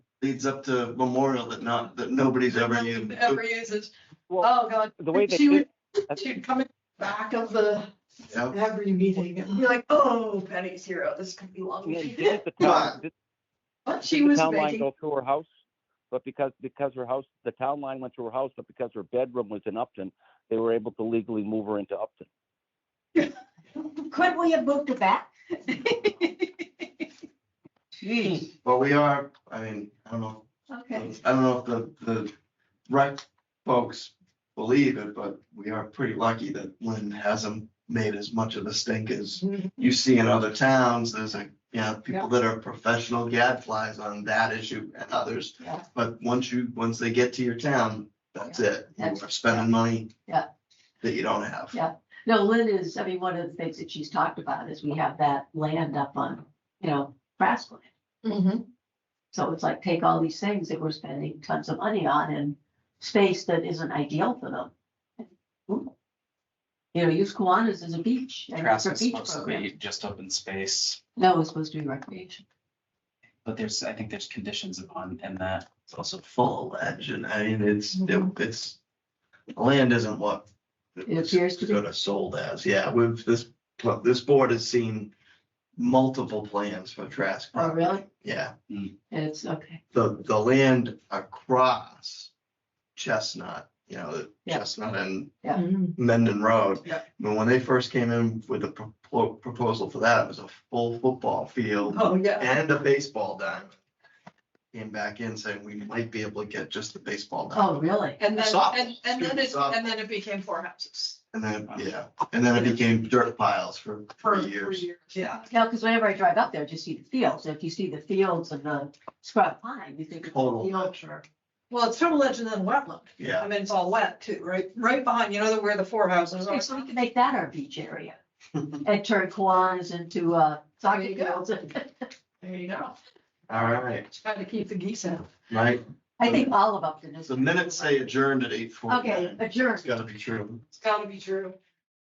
leads up to Memorial that not, that nobody's ever used. Ever uses. Well, Oh, God. the way uh, they She did, would, she'd come in back of the, Yeah. every meeting and be like, oh, Penny's hero. This could be long. yeah, didn't the town, did- But she did the was town line making, go through her house? But because, because her house, the town line went through her house, but because her bedroom was in Upton, they were able to legally move her into Upton. Could we have moved it back? Jeez. But we are, I mean, I don't know, I Okay. don't know if the, the right folks believe it, but we are pretty lucky that Lynn hasn't made as much of a stink as Mm-hmm. you see in other towns. There's like, you know, people that are professional gadflies on that issue and others. Yeah. But once you, once they get to your town, that's it. You That's- are spending money. Yeah. That you don't have. Yeah. No, Lynn is, I mean, one of the things that she's talked about is we have that land up on, you know, grassland. Mhm. So it's like take all these things that we're spending tons of money on and space that isn't ideal for them. You know, use Kiwanis as a beach. and it's a Trask is beach supposed to program. be just open space, No, it's supposed to be recreation. but there's, I think there's conditions upon, and that, It's also full of legend. I mean, it's, it- it's, land isn't what. Mm-hmm. It appears to be. Sort of sold as, yeah, we've, this, this board has seen multiple plans for Trask. Oh, really? Yeah, It's, okay, the, the land across Chestnut, you know, Yeah. Chestnut and Yeah. Mhm. Mendon Road. Yeah. But when they first came in with the pro- proposal for that, it was a full football field Oh, yeah. and a baseball diamond. Came back in saying we might be able to get just the baseball diamond. oh, really? And then, Soft. and, and then it, Soft. and then it became four houses And then, yeah, and then it became dirt piles for for three three years. years. Yeah. No, because whenever I drive up there, I just see the fields. If you see the fields and the scrub pine, you think. it's a Total field. culture. Well, it's total legend and wetland. I Yeah, mean, it's all wet too, right? Right behind, you know, where the four houses Okay, are. So we can make that our beach area and turn Kiwanis into, uh, There soccer you go. fields. and- There you go. all right, Try to keep the geese out. right. I think all of Upton is. The minutes say adjourned at eight forty. Okay, adjourn. It's gotta be true. It's gotta be true.